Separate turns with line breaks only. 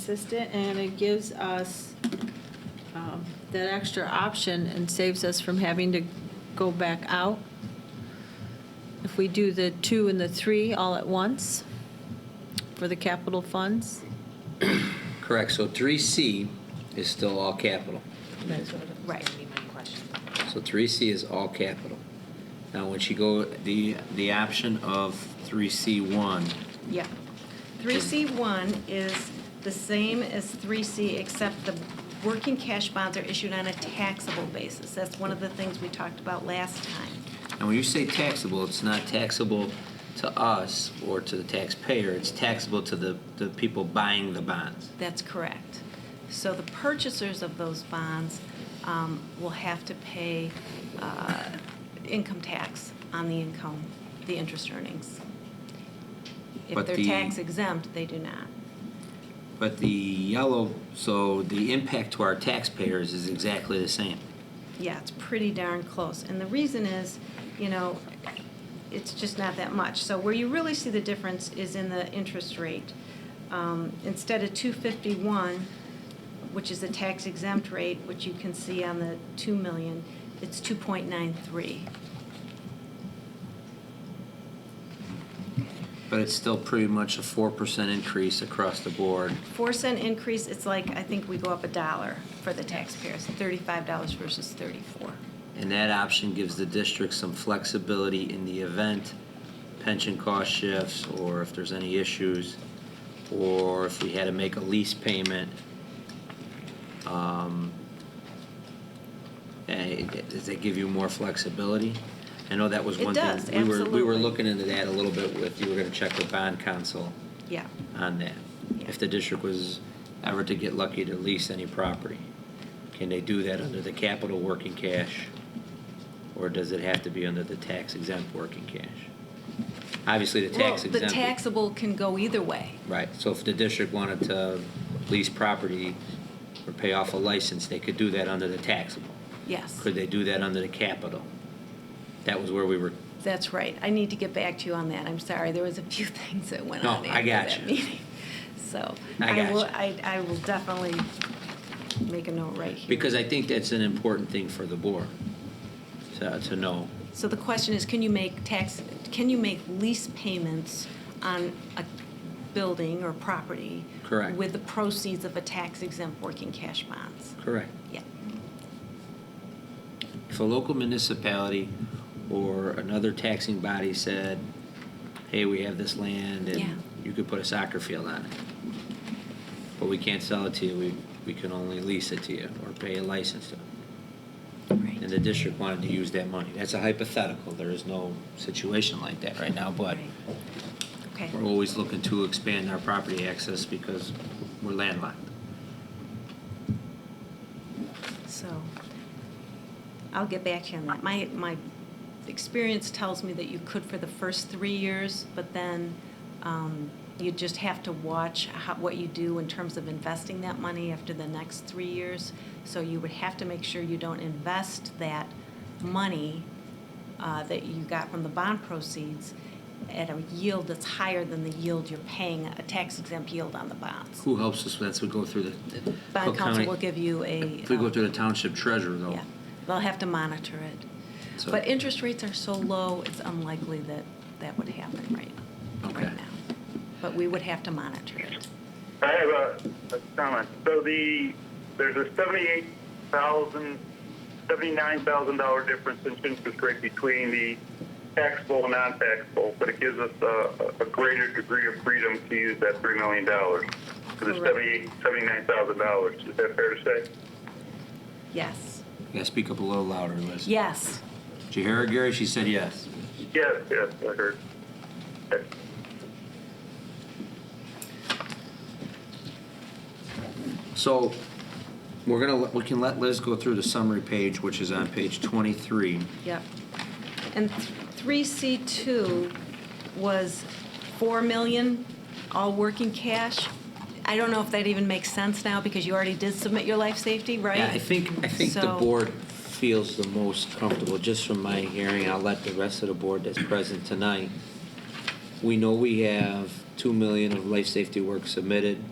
consistent, and it gives us um, that extra option and saves us from having to go back out. If we do the two and the three all at once for the capital funds.
Correct, so 3C is still all capital.
That's what was
Right.
gonna be my question.
So 3C is all capital. Now, once you go, the, the option of 3C1,
Yeah. Three C one is the same as three C, except the working cash bonds are issued on a taxable basis. That's one of the things we talked about last time.
and when you say taxable, it's not taxable to us or to the taxpayer, it's taxable to the, the people buying the bonds.
That's correct. So the purchasers of those bonds um, will have to pay uh, income tax on the income, the interest earnings. If
But
they're
the-
tax exempt, they do not.
But the yellow, so the impact to our taxpayers is exactly the same.
Yeah, it's pretty darn close. And the reason is, you know, it's just not that much. So where you really see the difference is in the interest rate. Um, Instead of 251, which is the tax exempt rate, which you can see on the 2 million, it's 2.93.
But it's still pretty much a 4% increase across the board.
Four cent increase, it's like, I think we go up a dollar for the taxpayers, $35 versus 34.
And that option gives the district some flexibility in the event pension cost shifts, or if there's any issues, or if we had to make a lease payment. Um, eh, Does that give you more flexibility? I know that was
It
one thing. we
does,
were- We were
absolutely.
looking into that a little bit with, you were gonna check with bond counsel
Yeah.
on that. If the district was ever to get lucky to lease any property, can they do that under the capital working cash? Or does it have to be under the tax exempt working cash? Obviously, the
Well,
tax exempt.
the taxable can go either way.
Right, so if the district wanted to lease property or pay off a license, they could do that under the taxable.
Yes.
Could they do that under the capital? That was where we were,
That's right. I need to get back to you on that. I'm sorry. There was a few things that went
No,
on
I
after
got
that
you.
meeting. So
I got
will,
you.
I, I will definitely make a note right here.
because I think that's an important thing for the board to, to know.
So the question is, can you make tax, can you make lease payments on a building or property?
Correct.
With the proceeds of a tax exempt working cash bonds?
Correct.
Yeah.
if a local municipality or another taxing body said, hey, we have this land
Yeah.
and you could put a soccer field on it, but we can't sell it to you, we, we can only lease it to you or pay a license to it.
Right.
And the district wanted to use that money. That's a hypothetical. There is no situation like that right now, but
Right. Okay.
we're always looking to expand our property access because we're landlocked.
So I'll get back to you on that. My, my experience tells me that you could for the first three years, but then um, you just have to watch how, what you do in terms of investing that money after the next three years. So you would have to make sure you don't invest that money uh, that you got from the bond proceeds at a yield that's higher than the yield you're paying, a tax exempt yield on the bonds.
Who helps us? That's we go through the.
The Bond
Cook County-
council will give you a.
If we go
um,
through the township treasurer though.
yeah, they'll have to monitor it.
So-
But interest rates are so low, it's unlikely that that would happen right,
Okay.
right now. But we would have to monitor it.
I have a, a comment. So the there's a seventy-eight thousand, seventy-nine thousand dollar difference in interest rate between the taxable and non-taxable, but it gives us a, a greater degree of freedom to use that three million dollars. Because it's
Correct.
seventy-eight, seventy-nine thousand dollars. Is that fair to say?
Yes,
Yeah, speak up a little louder, Liz.
yes.
Did you hear her, Gary? She said yes.
Yes, yes, I heard. Okay.
So we're gonna, let- we can let Liz go through the summary page, which is on page 23.
Yep. And three C two was four million, all working cash. I don't know if that even makes sense now, because you already did submit your life safety, right?
Yeah, I think, I think the
So-
board feels the most comfortable, just from my hearing, I'll let the rest of the board that's present tonight. We know we have 2 million of life safety work submitted.